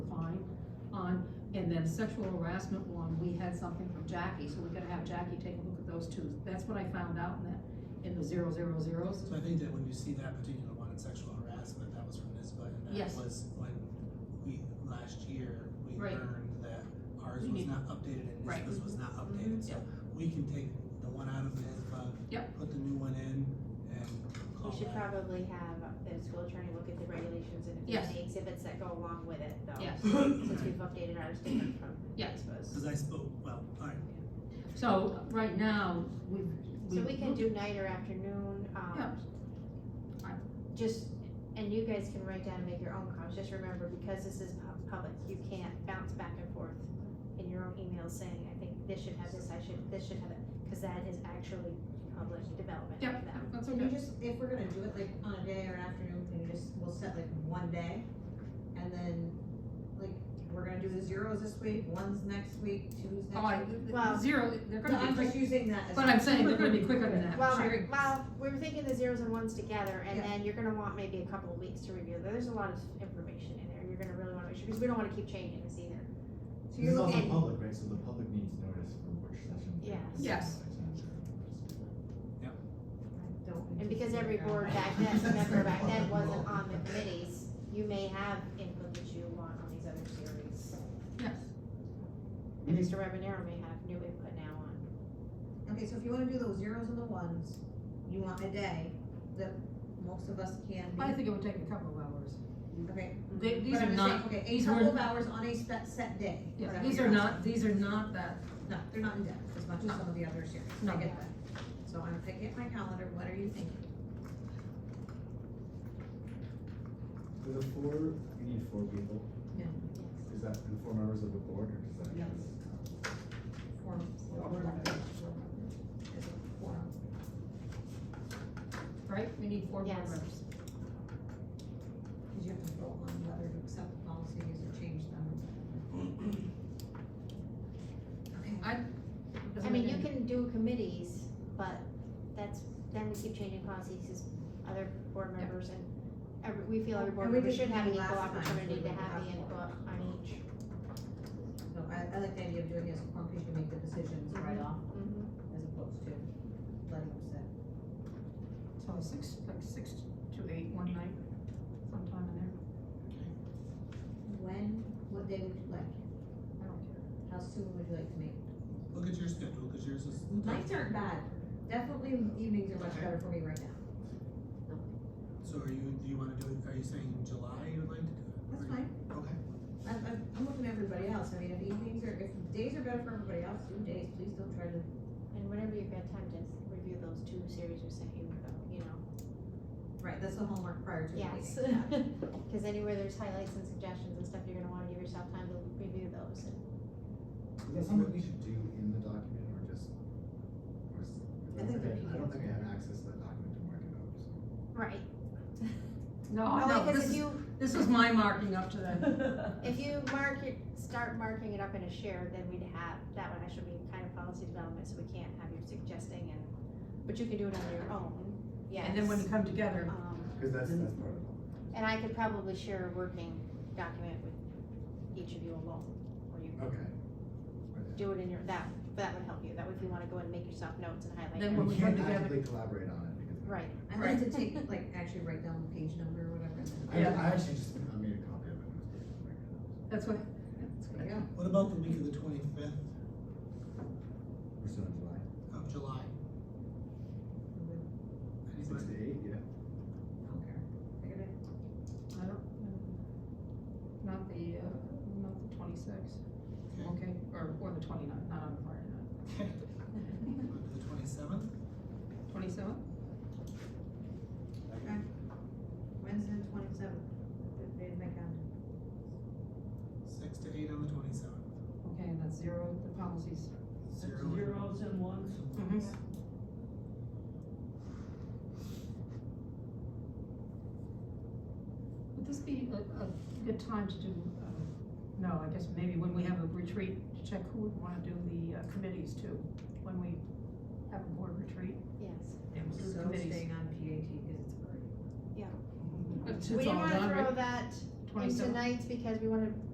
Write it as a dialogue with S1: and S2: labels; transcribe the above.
S1: And then sexual harassment one, we had something from Jackie, so we're gonna have Jackie take a look at those two. That's what I found out in that, in the zero zero zeros.
S2: So I think that when you see that particular one in sexual harassment, that was from NISBA, and that
S1: Yes.
S2: was when we, last year, we
S1: Right.
S2: learned that ours
S1: We
S2: was
S1: need-
S2: not updated and
S1: Right. Mm-hmm.
S2: NISBA's was not updated, so
S1: Yep.
S2: we can take the one out of NISBA.
S1: Yep.
S2: Put the new one in and call
S3: We should
S2: that.
S3: probably have the school attorney look at the regulations and if
S1: Yes.
S3: there's any exhibits that go along with it, though.
S1: Yes.
S3: Since we've updated ours different from.
S1: Yeah.
S3: NISBA's.
S2: Cause I spoke, well, alright,
S1: So right now, we.
S3: So we can do night or afternoon,
S1: Yeah.
S3: um,
S1: Fine.
S3: just, and you guys can write down and make your own comments, just remember, because this is pub- public, you can't bounce back and forth in your own email saying, I think this should have this, I should, this should have it, cause that is actually public development
S1: Yep.
S3: of them.
S1: That's
S4: Can you
S1: okay.
S4: just, if we're gonna do it like on a day or an afternoon, can you just, we'll set like one day? And then, like, we're gonna do the zeros this week, ones next week, two's
S1: Oh, I-
S4: next week.
S3: Well-
S1: zero, they're
S4: No,
S1: gonna
S4: I'm
S1: be quick,
S4: just using that as.
S1: but I'm saying they're gonna be quicker than that.
S3: Well,
S1: Sherry.
S3: well, we were thinking the zeros and ones together, and
S4: Yeah.
S3: then you're gonna want maybe a couple of weeks to review. There's a lot of information in there. You're gonna really wanna make sure, because we don't wanna keep changing this either.
S4: So
S5: This
S4: you're
S5: is also
S4: looking,
S5: public, right, so the public needs notice for which session.
S3: Yes.
S1: Yes.
S3: And because every board back then, member back then wasn't on the committees, you may have input that you want on these other series.
S1: Yes.
S5: Mm-hmm.
S3: And Mr. Webanero may have new input now on.
S4: okay, so if you wanna do those zeros and the ones, you want a day that most of us can
S1: I
S4: be,
S1: think it would take a couple of hours.
S4: okay?
S3: Mm-hmm.
S1: They, these are
S4: But I'm just saying,
S1: not,
S4: Okay, a
S1: these were-
S4: couple of hours on a set, set day.
S1: yeah,
S4: whatever
S1: these
S4: you're
S1: are
S4: asking.
S1: not, these are not that,
S4: No, they're not in depth as much as some of the other series,
S1: No.
S4: I get that. So I'm picking up my calendar, what are you thinking?
S5: For the four, you need four people.
S4: Yeah.
S5: Is that the four members of the board, or does that?
S4: Yes. Four, four,
S5: Is it four?
S1: right? We need four board
S3: Yes.
S1: members.
S4: Because you have to vote on whether to accept the policies or change them. Okay.
S3: I mean, you can do committees, but that's, then we keep changing policies as other board members and every, we feel every board
S4: And we
S3: member
S4: did
S3: should have an
S4: do
S3: equal
S4: last time,
S3: opportunity
S4: we
S3: to
S4: did
S3: have the
S4: have
S3: input
S4: four.
S3: on each.
S4: No, I, I like the idea of doing it as a form, because you make the decisions right off,
S3: Mhm.
S4: as opposed to letting them sit.
S1: So six, like six to eight one night, sometime in there,
S4: When, what day would you
S1: I
S4: like,
S1: don't care.
S4: how soon would you like to meet?
S2: look at your schedule, cause yours is.
S4: Nights aren't bad, definitely evenings are much better for me right now.
S2: So are you, do you wanna do it, are you saying July you'd like to do it?
S4: That's fine.
S2: Okay.
S4: I'm, I'm, I'm looking at everybody else, I mean, if evenings are, if days are better for everybody else, do days, please don't try to
S3: And whenever you've got time to review those two series we sent you, you know.
S4: Right, that's the homework prior to the meeting.
S3: Yes, because anywhere there's highlights and suggestions and stuff, you're gonna wanna give yourself time to review those. and-
S5: Is that something we should do in the document, or just? or is-
S4: I think they're
S5: I don't think I have access to that document to mark it up, so.
S3: Right.
S4: Oh,
S1: No,
S3: Only
S1: no,
S3: because
S1: this
S3: if
S1: is,
S3: you,
S1: this is my marking up to that.
S3: if you mark it, start marking it up in a shared, then we'd have, that would actually be kind of policy development, so we can't have you suggesting and, but you can do it on your own, yes.
S1: And then when you come together,
S3: Um,
S5: Cause that's, that's part of it.
S3: and I could probably share a working document with each of you alone, or you
S5: Okay.
S3: do it in your, that, that would help you, that way if you wanna go and make yourself notes and highlight.
S1: Then when
S3: them.
S5: We
S1: we come
S5: can't
S1: together-
S5: actively collaborate on it, because.
S3: Right.
S4: I like to take, like, actually write down the page number or whatever. and then-
S5: I,
S1: Yeah.
S5: I actually just, I made a copy of it. and I was gonna mark it up, so.
S1: that's what,
S4: There you go.
S2: What about the week of the twenty-fifth
S5: We're still in July.
S2: of July?
S5: Six
S2: Anybody?
S5: to eight, yeah.
S4: Okay. Figured it.
S1: I don't, not the, uh, not the twenty-sixth,
S2: Okay,
S1: okay, or, or the twenty-ninth, not on Friday night.
S2: okay. What, The twenty-seventh?
S1: Twenty-seventh?
S4: Wednesday, the twenty-seventh, the day of my calendar.
S2: Six to eight on the twenty-seventh.
S1: Okay, and that's zero, the policies.
S2: Zero.
S6: Zeros and ones.
S1: Would this be a, a good time to do, uh, no, I guess maybe when we have a retreat, to check who would wanna do the uh, committees too, when we have a board retreat?
S3: Yes.
S1: and we'll do
S4: So
S1: committees.
S4: staying on PAT because it's already.
S1: It's
S3: We
S1: all
S3: didn't wanna
S1: done,
S3: throw that in
S1: 27th.
S3: tonight's because we wanna